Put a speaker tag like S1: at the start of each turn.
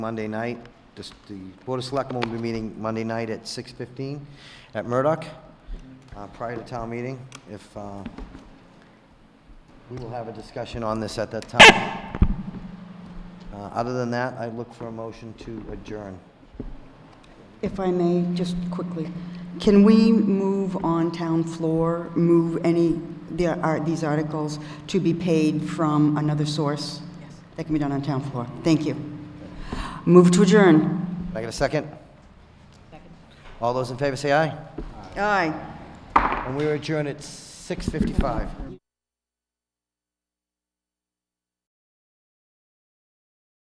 S1: Monday night. This- The Board of Selectmen will be meeting Monday night at 6:15 at Murdoch, uh, prior to town meeting. If, uh, we will have a discussion on this at that time. Uh, Other than that, I look for a motion to adjourn.
S2: If I may, just quickly, can we move on town floor, move any, there are, these articles to be paid from another source? Yes. That can be done on town floor. Thank you. Move to adjourn.
S1: Can I get a second? Second. All those in favor say aye.
S2: Aye.
S1: And we adjourn at 6:55.